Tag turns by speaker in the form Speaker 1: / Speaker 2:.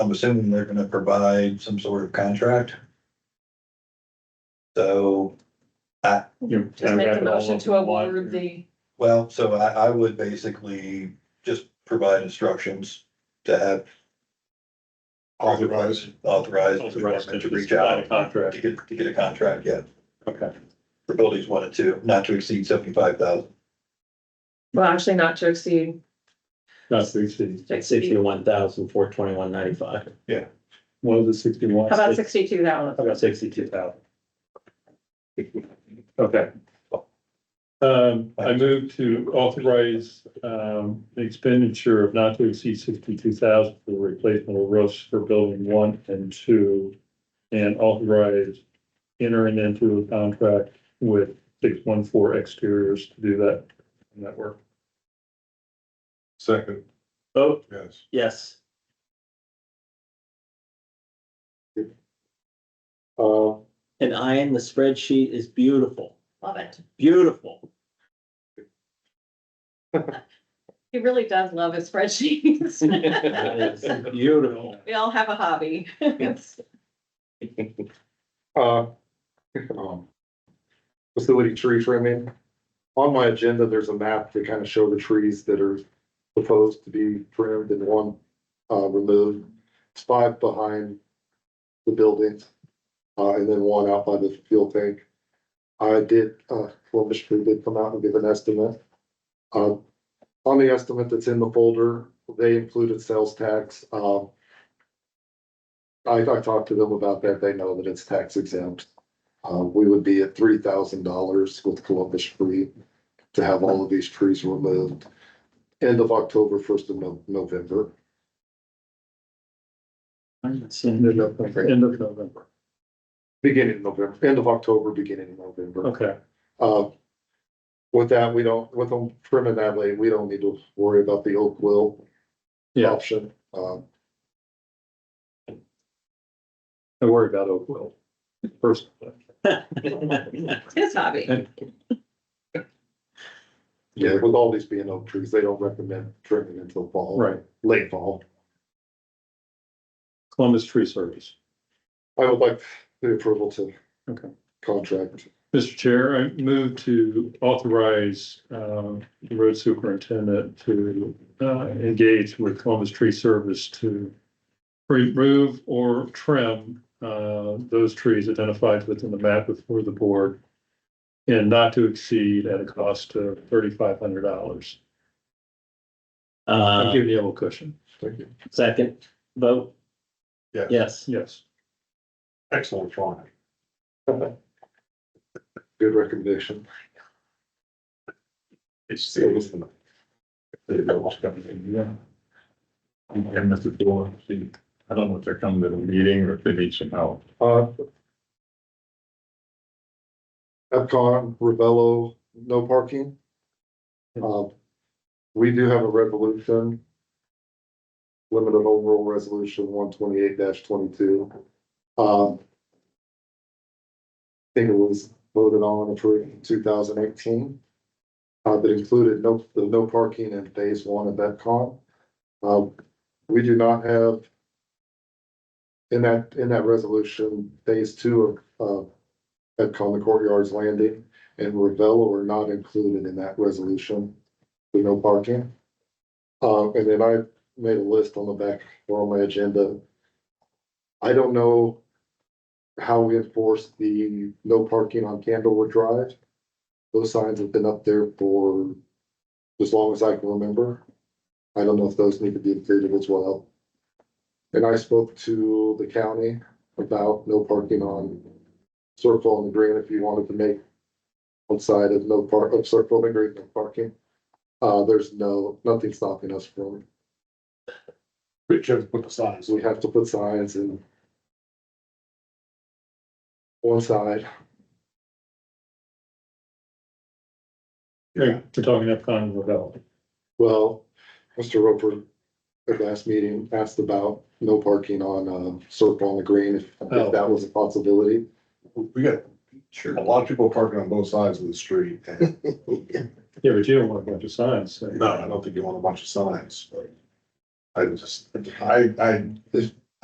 Speaker 1: I'm assuming they're gonna provide some sort of contract. So,
Speaker 2: You-
Speaker 3: Just
Speaker 2: I've
Speaker 3: make
Speaker 2: got
Speaker 3: the
Speaker 2: it all
Speaker 3: motion
Speaker 2: up
Speaker 3: to
Speaker 2: in one.
Speaker 3: award the,
Speaker 1: well, so I, I would basically just provide instructions to have
Speaker 2: Authorize.
Speaker 1: authorized the
Speaker 2: Authorize
Speaker 1: department
Speaker 2: to
Speaker 1: to reach out
Speaker 2: Contract,
Speaker 1: to get, to get a contract, yeah,
Speaker 2: okay.
Speaker 1: for buildings one and two, not to exceed seventy-five thousand.
Speaker 3: well, actually not to exceed,
Speaker 2: That's sixty,
Speaker 4: Sixty-one thousand, four twenty-one ninety-five.
Speaker 2: what was it, sixty-one?
Speaker 3: how about sixty-two thousand?
Speaker 4: How about sixty-two thousand?
Speaker 2: Okay. Um, I move to authorize, um, the expenditure of not to exceed sixty-two thousand for the replacement of roofs for building one and two. And authorize entering into a contract with six one four exteriors to do that, that work.
Speaker 5: Second,
Speaker 4: Vote
Speaker 5: yes.
Speaker 4: yes.
Speaker 2: Uh,
Speaker 4: And I in the spreadsheet is beautiful,
Speaker 3: Love it.
Speaker 4: beautiful.
Speaker 3: He really does love his spreadsheets.
Speaker 4: That is Beautiful.
Speaker 3: We all have a hobby. It's-
Speaker 5: Uh, um, facility tree trimming. On my agenda, there's a map to kind of show the trees that are proposed to be trimmed and one, uh, removed. It's five behind the buildings, uh, and then one out by the fuel tank. I did, uh, Columbus Tree did come out and give an estimate. Uh, on the estimate that's in the folder, they included sales tax, um, I, I talked to them about that. They know that it's tax exempt. Uh, we would be at three thousand dollars with Columbus Free to have all of these trees removed. End of October, first of No- November.
Speaker 2: end of November, end of November,
Speaker 5: Beginning of November, end of October, beginning of November.
Speaker 2: okay, Oh.
Speaker 5: Uh, with that, we don't, with them trimming that lane, we don't need to worry about the oak will
Speaker 2: Yeah.
Speaker 5: option. Uh,
Speaker 2: I worry about Oakville, first.
Speaker 3: It's his hobby.
Speaker 5: yeah, with all these being oak trees, they don't recommend trimming until fall.
Speaker 2: Right,
Speaker 5: Late fall.
Speaker 2: Columbus Tree Service.
Speaker 5: I would like the approval to.
Speaker 2: Okay.
Speaker 5: Contract,
Speaker 2: Mr. Chair, I move to authorize um, the road superintendent to uh, engage with Columbus Tree Service to remove or trim uh, those trees identified within the map before the board and not to exceed at a cost of thirty-five hundred dollars. I'm
Speaker 4: Uh,
Speaker 2: giving you a little cushion.
Speaker 5: thank you.
Speaker 4: second, vote
Speaker 5: Yes.
Speaker 4: yes.
Speaker 2: Yes.
Speaker 5: Excellent drawing. Good recommendation. It's serious.
Speaker 6: Yeah. And Mr. Doyle, see, I don't know if they're coming to the meeting or if they need some help.
Speaker 5: Uh. Epcot, Ravello, no parking. Um, we do have a resolution. Limited overall resolution one twenty-eight twenty-two. Um. I Think it was voted on and approved in two thousand eighteen. Uh, that included no, the no parking in phase one of Epcot. Um, we do not have in that, in that resolution, phase two of, uh, at Common Courtyards Landing and Ravello are not included in that resolution. We no parking. Uh, and then I made a list on the back or on my agenda. I don't know how we enforce the no parking on Candlewood Drive. Those signs have been up there for as long as I can remember. I don't know if those need to be included as well. And I spoke to the county about no parking on Circle on the Green if you wanted to make one side of no park, of Circle on the Green, no parking. Uh, there's no, nothing stopping us from,
Speaker 6: We should put the signs.
Speaker 5: so we have to put signs in one side,
Speaker 2: We're talking Epcot and Ravel.
Speaker 5: well, Mr. Roper at last meeting asked about no parking on, uh, Circle on the Green, if, if that was a possibility.
Speaker 6: Oh. We got
Speaker 1: Sure.
Speaker 6: a lot of people parking on both sides of the street. and-
Speaker 2: Yeah, but you don't want a bunch of signs. so-
Speaker 6: No, I don't think you want a bunch of signs, but I just, I, I,
Speaker 5: If,